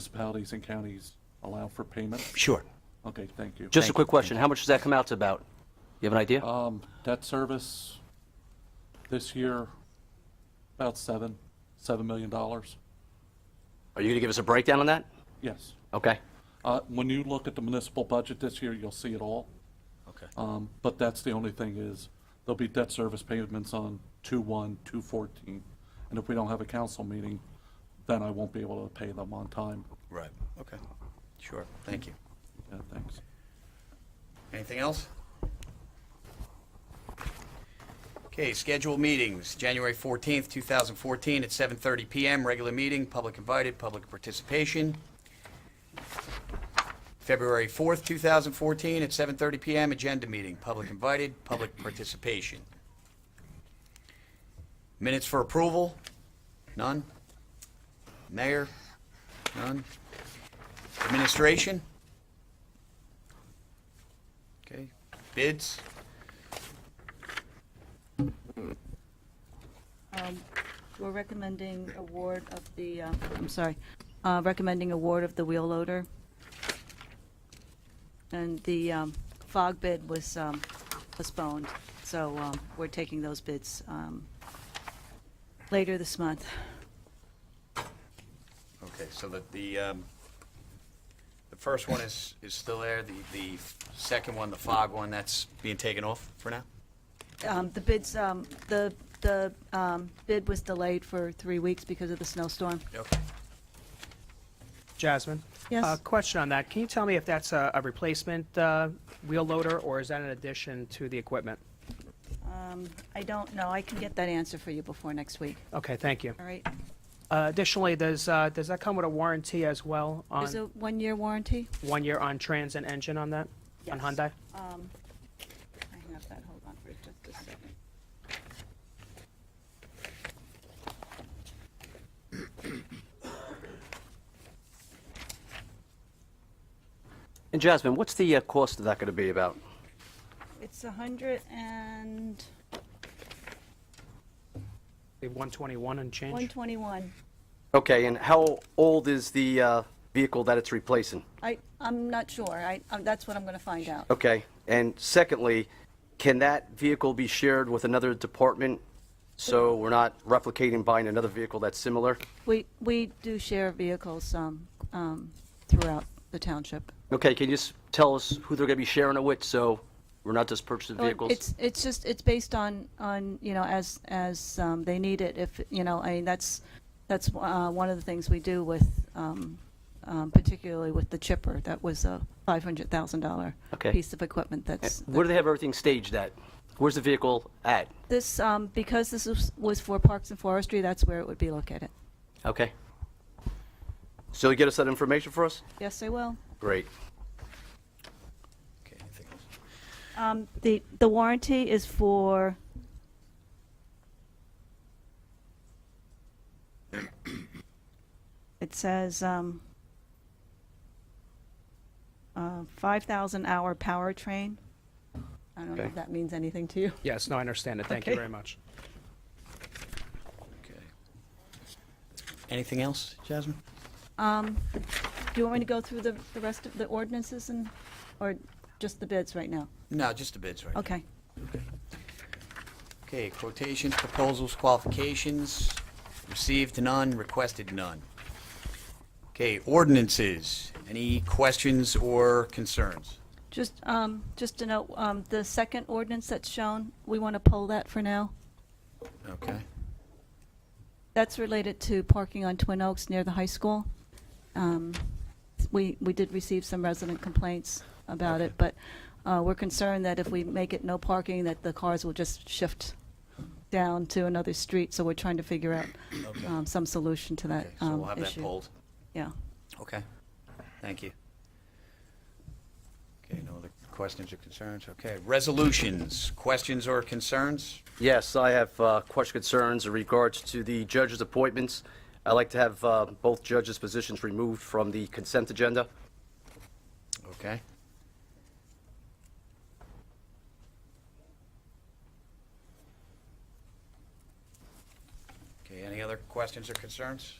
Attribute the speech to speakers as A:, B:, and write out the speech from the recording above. A: municipalities and counties allow for payment?
B: Sure.
A: Okay, thank you.
C: Just a
B: Thank
C: quick
B: you,
C: question. How much does that come out to about? You have an idea?
A: Um, debt service this year, about seven, seven million dollars.
C: Are you going to give us a breakdown on that?
A: Yes.
C: Okay.
A: Uh, when you look at the municipal budget this year, you'll see it all.
B: Okay.
A: Um, but that's the only thing is, there'll be debt service payments on two one, two fourteen. And if we don't have a council meeting, then I won't be able to pay them on time.
B: Right. Okay. Sure. Thank you.
A: Yeah, thanks.
B: Anything else? Okay, scheduled meetings, January 14th, 2014, at 7:30 PM, regular meeting, public invited, public participation. February 4th, 2014, at 7:30 PM, agenda meeting, public invited, public participation. Minutes for approval? None? Mayor? None? Administration? Okay, bids?
D: We're recommending award of the, uh, I'm sorry, uh, recommending award of the wheel loader. And the um, fog bid was um, postponed, so um, we're taking those bids um, later this month.
B: Okay, so the, the, um, the first one is, is still there, the, the second one, the fog one, that's being taken off for now?
D: Um, The bids, um, the, the um, bid was delayed for three weeks because of the snowstorm.
B: Okay.
E: Jasmine?
D: Yes.
E: A question on that. Can you tell me if that's a, a replacement, uh, wheel loader or is that an addition to the equipment?
D: I don't know, I can get that answer for you before next week,
E: Okay, thank you.
D: all right?
E: Uh, additionally, does, uh, does that come with a warranty as well
D: Is it
E: on,
D: one-year warranty?
E: one year on trans and engine on that? On
D: Yes.
E: Hyundai?
D: I have that, hold on for just a second.
C: And Jasmine, what's the uh, cost of that going to be about?
D: It's a hundred and
E: The one twenty-one and
D: one
E: change?
D: twenty-one.
C: Okay, and how old is the uh, vehicle that it's replacing?
D: I, I'm not sure. I, um, that's what I'm gonna find out.
C: Okay, and secondly, can that vehicle be shared with another department so we're not replicating buying another vehicle that's similar?
D: We, we do share vehicles, um, um, throughout the township.
C: Okay, can you just tell us who they're going to be sharing it with so we're not just purchasing
D: Well,
C: vehicles?
D: It's, it's just, it's based on, on, you know, as, as, um, they need it, if, you know, I mean, that's, that's, uh, one of the things we do with, um, um, particularly with the chipper. That was a five hundred thousand dollar
C: Okay.
D: piece of equipment that's.
C: Where do they have everything staged at? Where's the vehicle at?
D: This, um, because this was, was for Parks and Forestry, that's where it would be located.
C: Okay. So you get us that information for us?
D: Yes, I will.
C: Great.
B: Okay, anything else?
D: Um, the, the warranty is for, it says, um, uh, 5,000 hour powertrain. I don't know
C: Okay.
D: if that means anything to you.
E: Yes, no, I understand it. Thank you
D: Okay.
E: very much.
B: Okay. Anything else, Jasmine?
D: Um, Do you want me to go through the, the rest of the ordinances and, or just the bids right now?
B: No, just the bids right now.
D: Okay.
B: Okay, quotations, proposals, qualifications, received none, requested none. Okay, ordinances, any questions or concerns?
D: Just, um, just to note, um, the second ordinance that's shown, we want to pull that for now.
B: Okay.
D: That's related to parking on Twin Oaks near the high school. Um, We, we did receive some resident complaints about it, but uh, we're concerned that if we make it no parking, that the cars will just shift down to another street, so we're trying to figure out um, some solution to that
B: Okay, so we'll
D: um,
B: have that
D: issue.
B: polled.
D: Yeah.
B: Okay, thank you. Okay, no other questions or concerns? Okay, resolutions, questions or concerns?
C: Yes, I have uh, questions, concerns in regards to the judges' appointments. I'd like to have uh, both judges' positions removed from the consent agenda.
B: Okay. Okay, any other questions or concerns?